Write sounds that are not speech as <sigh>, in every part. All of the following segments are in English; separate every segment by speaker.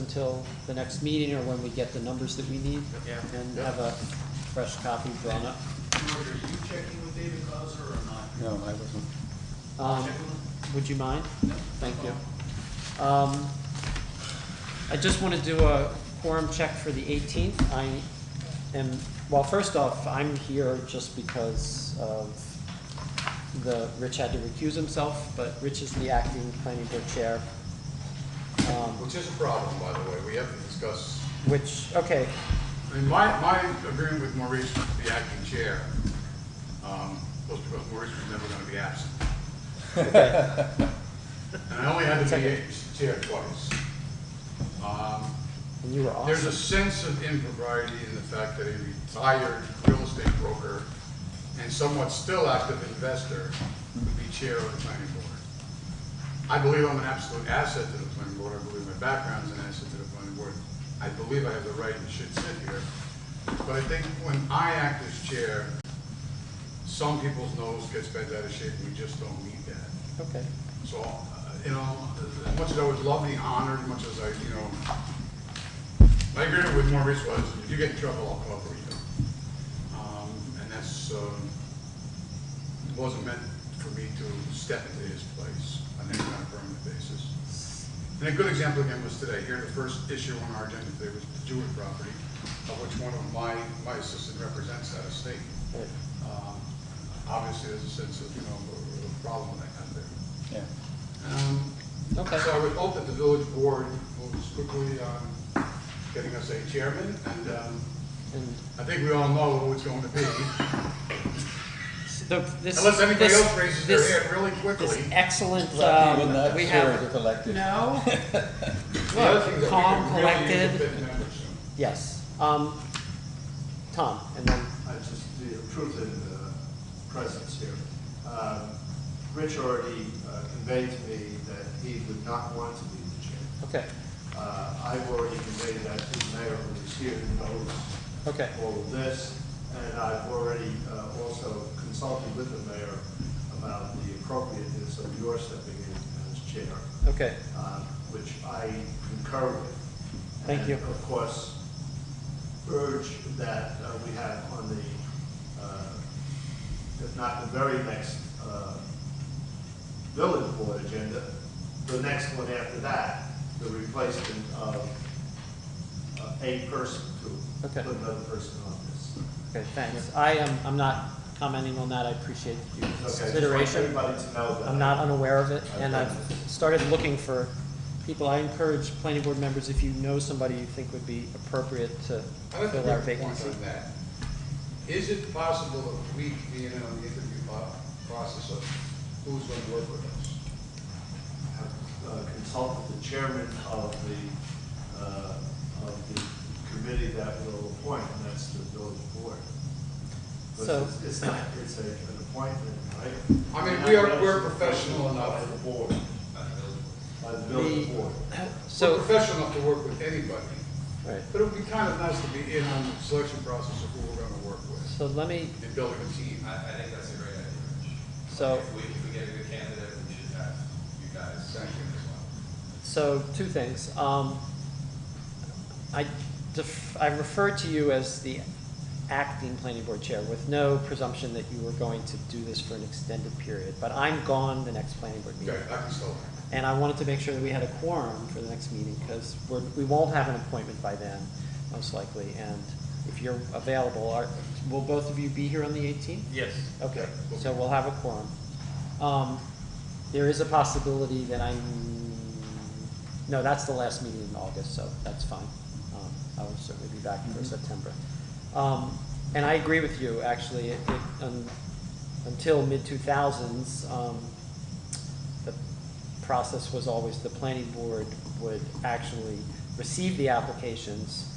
Speaker 1: until the next meeting or when we get the numbers that we need
Speaker 2: Yeah.
Speaker 1: and have a fresh copy drawn up.
Speaker 2: George, are you checking with David Clauser or not?
Speaker 3: No, I wasn't.
Speaker 1: Um,
Speaker 2: Check with
Speaker 1: Would you mind?
Speaker 2: him?
Speaker 1: Thank you. Um, I just want to do a quorum check for the 18th. I am, well, first off, I'm here just because of the, Rich had to recuse himself, but Rich is the acting planning board chair. Um,
Speaker 4: Which is a problem, by the way, we have to discuss,
Speaker 1: Which, okay,
Speaker 4: I mean, my, my agreement with Maurice, the acting chair, um, was because Maurice was never gonna be absent.
Speaker 1: okay,
Speaker 4: And I only had to be chair twice. Um,
Speaker 1: and you were
Speaker 4: There's a
Speaker 1: awesome.
Speaker 4: sense of impropriety in the fact that a retired real estate broker and somewhat still active investor would be chair of the planning board. I believe I'm an absolute asset to the planning board, I believe my background's an asset to the planning board. I believe I have the right and should sit here. But I think when I act as chair, some people's nose gets bent out of shape, and we just don't need that.
Speaker 1: Okay,
Speaker 4: So, uh, you know, as much as I would love the honor, as much as I, you know, my agreement with Maurice was, if you get in trouble, I'll cover you. Um, and that's, um, wasn't meant for me to step into his place on any kind of permanent basis. And a good example again was today, here, the first issue on our agenda today was the Jewett property, of which one of my, my assistant represents that estate.
Speaker 1: Right.
Speaker 4: Um, Obviously, there's a sense of, you know, a- a problem with that kind of thing.
Speaker 3: Yeah.
Speaker 4: Um,
Speaker 1: Okay.
Speaker 4: So I would hope that the village board moves quickly on getting us a chairman, and um,
Speaker 1: and
Speaker 4: I think we all know who it's going to be.
Speaker 1: the, this.
Speaker 4: Unless anybody
Speaker 1: this-
Speaker 4: else raises their
Speaker 1: this-
Speaker 4: hand really quickly.
Speaker 1: This excellent,
Speaker 3: Lucky
Speaker 1: um,
Speaker 3: we're not
Speaker 1: we
Speaker 3: sure
Speaker 1: have,
Speaker 3: if elected.
Speaker 1: <laughs> no,
Speaker 4: The other thing that we
Speaker 1: calm,
Speaker 4: could really use is a
Speaker 1: collected.
Speaker 4: fifth member soon.
Speaker 1: yes, um, Tom, and then,
Speaker 5: I just the proof of uh, presence here. Um, Rich already uh, conveyed to me that he would not want to be the chair.
Speaker 1: okay,
Speaker 5: Uh, I've already conveyed that to the mayor who is here and knows
Speaker 1: okay,
Speaker 5: all of this, and I've already uh, also consulted with the mayor about the appropriateness of your stepping in as chair,
Speaker 1: okay,
Speaker 5: uh, which I concur with.
Speaker 1: Thank you.
Speaker 5: And of course, urge that uh, we have on the, uh, if not the very next uh, village board agenda, the next one after that, the replacement of uh, a person to
Speaker 1: Okay.
Speaker 5: put another person on this.
Speaker 1: okay, thanks. I am, I'm not commenting on that, I appreciate your
Speaker 5: Okay, just want
Speaker 1: consideration.
Speaker 5: everybody to know that.
Speaker 1: I'm not unaware of it, and
Speaker 5: Okay.
Speaker 1: I've started looking for people. I encourage planning board members, if you know somebody you think would be appropriate to
Speaker 4: I'd like to
Speaker 1: fill our
Speaker 4: make a point
Speaker 1: vacancy.
Speaker 4: on that. Is it possible that we, being in on the interview po- process of who's going to work with us?
Speaker 5: have uh, consulted the chairman of the, uh, of the committee that will appoint, and that's the village board. But
Speaker 1: So-
Speaker 5: it's- It's not, it's a, an appointment, right?
Speaker 4: I mean, we are, we're professional enough.
Speaker 5: By the board, by the village
Speaker 1: The-
Speaker 5: board.
Speaker 4: We're
Speaker 1: So,
Speaker 4: professional enough to work with anybody.
Speaker 1: right,
Speaker 4: But it would be kind of nice to be in on the selection process of who we're gonna work with
Speaker 1: so let me,
Speaker 4: and building a team.
Speaker 2: I, I think that's a great idea, Rich.
Speaker 1: so.
Speaker 2: If we, if we get a good candidate, we should have you guys second as well.
Speaker 1: So, two things. Um, I def- I refer to you as the acting planning board chair with no presumption that you were going to do this for an extended period, but I'm gone the next planning board meeting.
Speaker 4: Okay, I can still, act.
Speaker 1: And I wanted to make sure that we had a quorum for the next meeting, because we're, we won't have an appointment by then, most likely. And if you're available, are, will both of you be here on the eighteenth?
Speaker 2: Yes.
Speaker 1: Okay, so we'll have a quorum. Um, there is a possibility that I'm, no, that's the last meeting in August, so that's fine. Um, I will certainly be back for September. Um, and I agree with you, actually, it, it, um, until mid-two-thousands, um, the process was always the planning board would actually receive the applications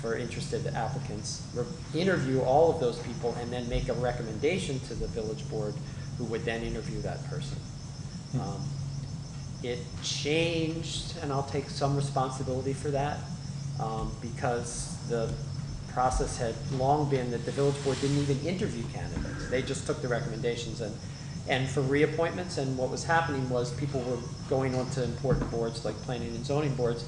Speaker 1: for interested applicants, re- interview all of those people, and then make a recommendation to the village board, who would then interview that person. Um, It changed, and I'll take some responsibility for that, um, because the process had long been that the village board didn't even interview candidates. They just took the recommendations and, and for reappointments, and what was happening was people were going on to important boards like planning and zoning boards,